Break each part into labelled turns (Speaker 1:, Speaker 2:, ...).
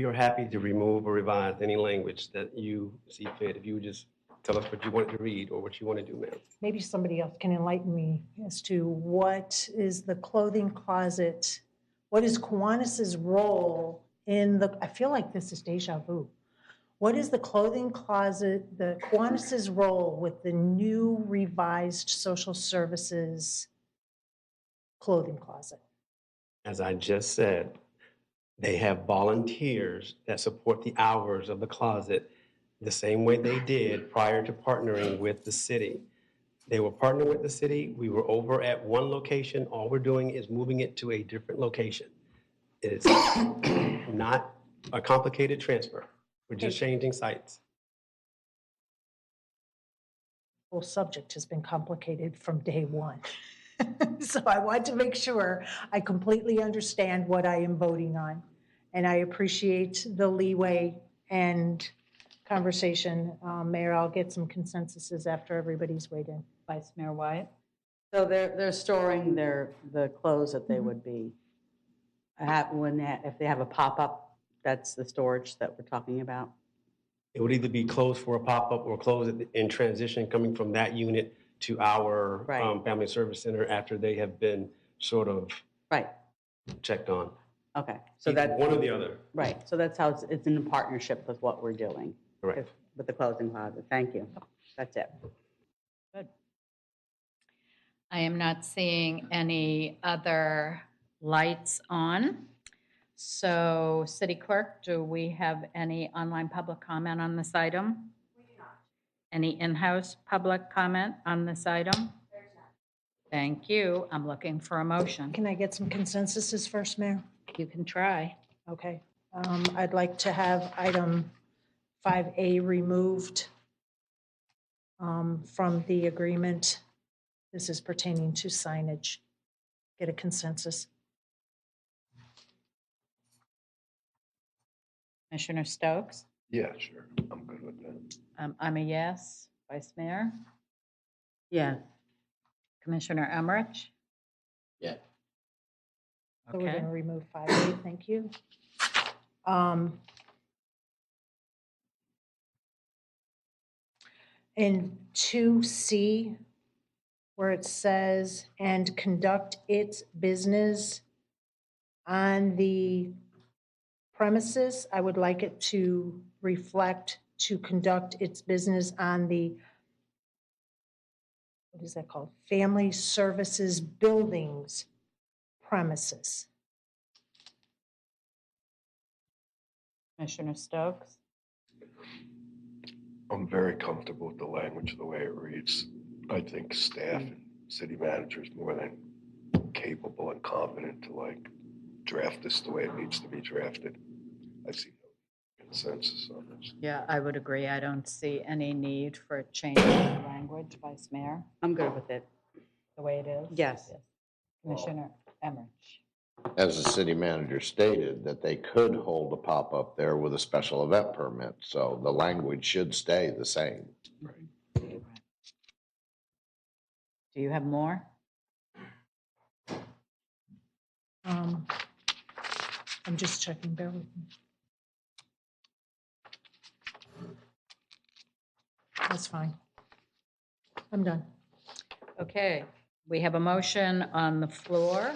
Speaker 1: you're happy to remove or revise any language that you see fit, if you would just tell us what you want to read or what you want to do, ma'am.
Speaker 2: Maybe somebody else can enlighten me as to what is the clothing closet? What is Kiwanis's role in the, I feel like this is deja vu. What is the clothing closet, the Kiwanis's role with the new revised social services clothing closet?
Speaker 1: As I just said, they have volunteers that support the hours of the closet the same way they did prior to partnering with the city. They were partnering with the city. We were over at one location. All we're doing is moving it to a different location. It's not a complicated transfer. We're just changing sites.
Speaker 2: whole subject has been complicated from day one. So I want to make sure I completely understand what I am voting on. And I appreciate the leeway and conversation. Um, Mayor, I'll get some consensuses after everybody's weighed in.
Speaker 3: Vice Mayor Wyatt. So they're, they're storing their, the clothes that they would be, have, when, they- if they have a pop-up, that's the storage that we're talking about.
Speaker 1: It would either be closed for a pop-up or closed in transition coming from that unit to our
Speaker 3: Right.
Speaker 1: um, Family Service Center after they have been sort of
Speaker 3: Right,
Speaker 1: checked on.
Speaker 3: okay, so
Speaker 1: Either
Speaker 3: that,
Speaker 1: One or the other.
Speaker 3: right, so that's how it's, it's in partnership with what we're doing,
Speaker 1: Correct.
Speaker 3: if- with the clothing closet, thank you, that's it.
Speaker 4: I am not seeing any other lights on. So, City Clerk, do we have any online public comment on this item? Any in-house public comment on this item? Thank you. I'm looking for a motion.
Speaker 2: Can I get some consensuses first, Mayor?
Speaker 4: You can try.
Speaker 2: Okay. Um, I'd like to have item 5A removed um, from the agreement. This is pertaining to signage. Get a consensus.
Speaker 4: Commissioner Stokes?
Speaker 5: Yeah, sure. I'm good with that.
Speaker 4: Um, I'm a yes. Vice Mayor?
Speaker 3: Yeah,
Speaker 4: Commissioner Emmerich?
Speaker 5: Yeah.
Speaker 2: So we're going
Speaker 4: Okay.
Speaker 2: to remove 5A, thank you. Um, In 2C, where it says, "And conduct its business on the premises," I would like it to reflect to conduct its business on the, what is that called? Family Services Buildings premises.
Speaker 4: Commissioner Stokes?
Speaker 5: I'm very comfortable with the language, the way it reads. I think staff and city managers more than capable and competent to like draft this the way it needs to be drafted. I see no consensus on this.
Speaker 4: Yeah, I would agree. I don't see any need for a change in the language, Vice Mayor,
Speaker 3: I'm good with it,
Speaker 4: the way it is.
Speaker 3: yes,
Speaker 4: Commissioner Emmerich.
Speaker 6: as the city manager stated, that they could hold a pop-up there with a special event permit, so the language should stay the same.
Speaker 4: Do you have more?
Speaker 2: Um, I'm just checking, bear with me. That's fine. I'm done.
Speaker 4: Okay, we have a motion on the floor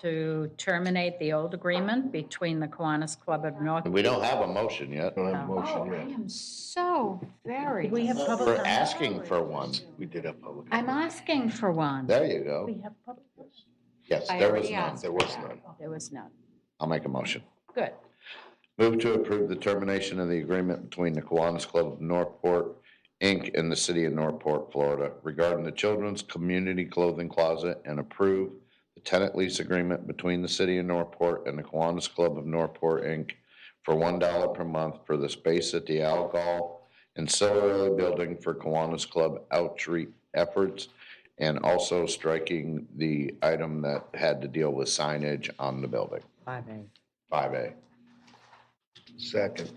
Speaker 4: to terminate the old agreement between the Kiwanis Club of North.
Speaker 6: And we don't have a motion yet.
Speaker 5: Don't have a
Speaker 4: Oh,
Speaker 5: motion
Speaker 4: I
Speaker 5: yet.
Speaker 4: am so very.
Speaker 2: We have public
Speaker 6: We're
Speaker 2: comment.
Speaker 6: asking for one.
Speaker 5: We did have public.
Speaker 4: I'm asking for one.
Speaker 6: There you go.
Speaker 2: We have public.
Speaker 6: Yes,
Speaker 4: I
Speaker 6: there was
Speaker 4: already
Speaker 6: none.
Speaker 4: asked
Speaker 6: There
Speaker 4: for
Speaker 6: was
Speaker 4: that.
Speaker 6: none.
Speaker 4: There was none.
Speaker 6: I'll make a motion.
Speaker 4: Good.
Speaker 6: Move to approve the termination of the agreement between the Kiwanis Club of Northport, Inc. and the city of Northport, Florida regarding the Children's Community Clothing Closet and approve the tenant lease agreement between the city of Northport and the Kiwanis Club of Northport, Inc. for one dollar per month for the space at the Alcohol Ancillary Building for Kiwanis Club outreach efforts and also striking the item that had to deal with signage on the building,
Speaker 3: five A.
Speaker 6: five A.
Speaker 5: Second,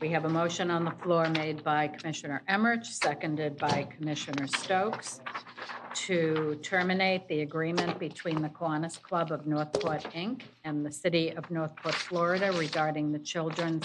Speaker 4: We have a motion on the floor made by Commissioner Emmerich, seconded by Commissioner Stokes to terminate the agreement between the Kiwanis Club of Northport, Inc. and the City of Northport, Florida regarding the Children's